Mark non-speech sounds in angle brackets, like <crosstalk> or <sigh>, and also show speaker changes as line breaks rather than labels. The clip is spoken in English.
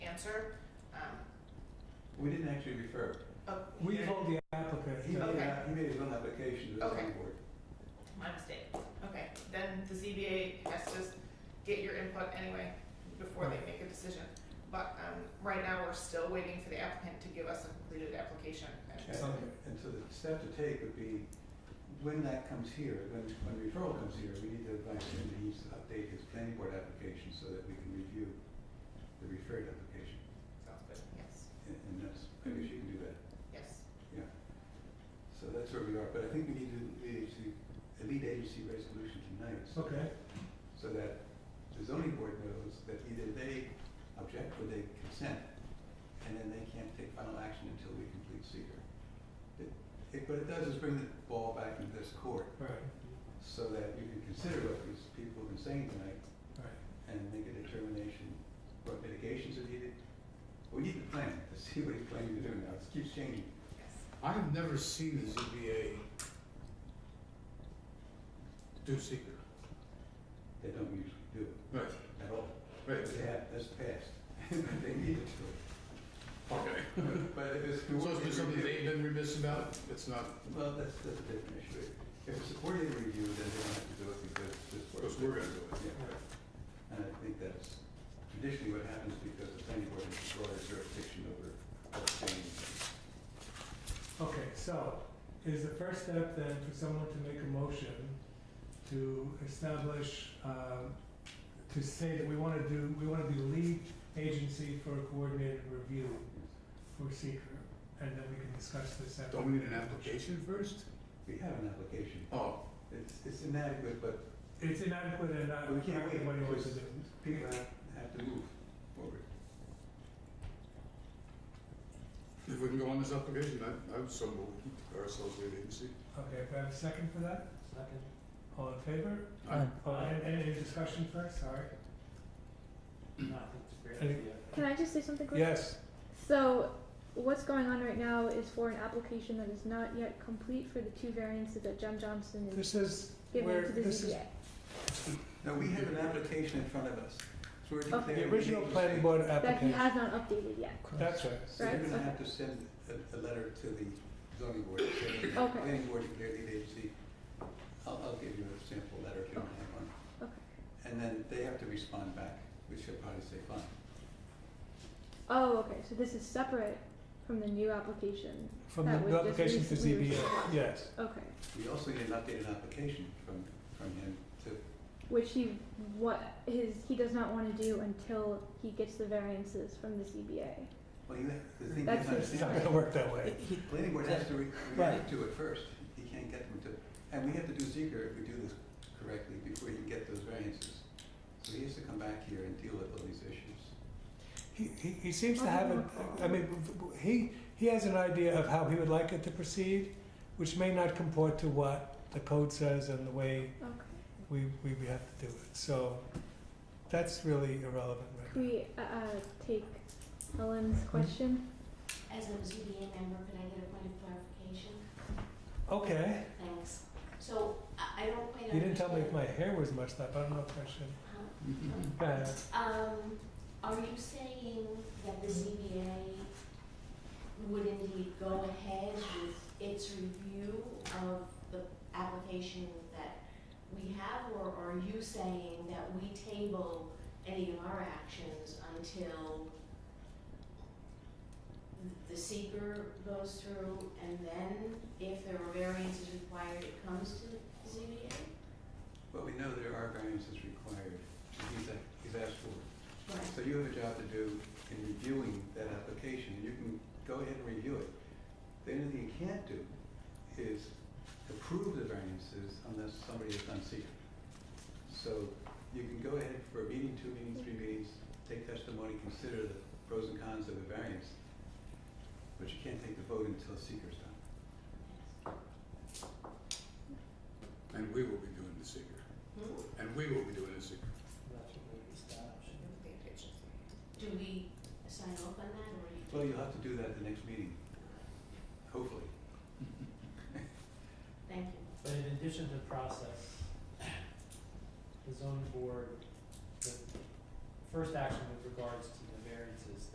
answer. Um,
We didn't actually refer.
oh,
We
here.
told the applicant.
He made,
that-
Okay.
he made his own application to the
Okay.
zoning board.
My mistake. Okay, then the ZBA has to get your input anyway before they make a decision. But, um, right now, we're still waiting for the applicant to give us a completed application.
And-
And-
Okay.
And so the step to take would be, when that comes here, when, when referral comes here, we need to advise him that he needs to update his planning board application so that we can review the referred application.
Sounds good, yes,
And and that's, I guess you can do that.
yes.
So that's where we are, but I think we need to, we need to, a lead agency resolution tonight, so-
Okay,
so that the zoning board knows that either they object or they consent, and then they can't take final action until we complete seeker. It- It, what it does is bring the ball back into this court,
right,
so that you can consider what these people have been saying tonight,
right.
and make a determination, what mitigations are needed. We need the plan to see what he's planning to do now, it keeps changing.
Yes.
I have never seen the ZBA do secret.
They don't usually do it
Right,
at all.
right.
But Yeah, that's past. <laughs> They need it to.
Okay.
But if it's.
So it's been something they've been remiss about? It's not,
Well, that's, that's a different issue. If it's a coordinated review, then they don't have to do it because this board.
Because we're gonna do it.
Yeah. And I think that's traditionally what happens because the planning board has broader jurisdiction over upstream.
Okay, so is the first step then for someone to make a motion to establish, um, to say that we want to do, we want to be lead agency for coordinated review for seeker, and then we can discuss this after.
don't we need an application first?
We have an application.
Oh,
It's, it's inadequate, but
It's inadequate and not
But we can't wait.
what he wants to do.
people have, have to move forward.
if we can go on this application, I, I would so move ourselves lead agency.
Okay, if I have a second for that,
Second.
all in favor?
I-
Oh, and, and any discussion first, sorry?
No, I think it's a great
Any-
idea.
Can I just say something quick?
Yes.
So, what's going on right now is for an application that is not yet complete for the two variances that Jen Johnson is
This is
giving
where,
to the
this is
ZBA.
No, we have an application in front of us. So we're declaring.
Oh, the original
agency.
planning board
That he
application.
has not updated yet.
That's right.
So you're
Right,
gonna
okay.
have to send a, a letter to the zoning board, saying,
Okay.
planning board declared lead agency. I'll, I'll give you a sample letter if you don't have one.
Okay.
And then they have to respond back, which should probably say fine.
Oh, okay, so this is separate from the new application.
From the
That was
the
just
application to
recently
ZBA,
received.
yes.
Okay,
We also need an updated application from, from him to,
which he, what, his, he does not wanna do until he gets the variances from the ZBA.
well, you have, the thing
That's
is,
his-
It's not
understand,
gonna work that way.
the planning board has to re-
Right.
react to it first. He can't get them to, and we have to do seeker if we do this correctly before you can get those variances. So he has to come back here and deal with all these issues.
He, he, he seems to
I'll
have,
give
a
him a call.
I mean, v- v- he, he has an idea of how he would like it to proceed, which may not comport to what the code says and the way
Okay.
we, we we have to do it. So that's really irrelevant right
Can
now.
we, uh, uh, take Helen's question?
As a ZBA member, could I get a point of clarification?
Okay,
Thanks. So I I don't quite understand.
you didn't tell me if my hair was much up, I don't know if I should.
Huh?
Go ahead.
Um, are you saying that the ZBA would indeed go ahead with its review of the application that we have? Or are you saying that we table any of our actions until the seeker goes through and then if there are variances required, it comes to the ZBA?
But we know there are variances required, he's, a- he's asked for.
Right.
So you have a job to do in reviewing that application, and you can go ahead and review it. The only thing you can't do is approve the variances unless somebody has done secret. So you can go ahead for a meeting, two meetings, three meetings, take testimony, consider the pros and cons of the variance, but you can't take the vote until seeker's done.
And we will be doing the secret.
Hmm?
And we will be doing the secret.
That's what we established.
Do we sign off on that, or you?
Well, you'll have to do that at the next meeting, hopefully.
Thank you.
But in addition to the process, the zoning board, the first action with regards to the variances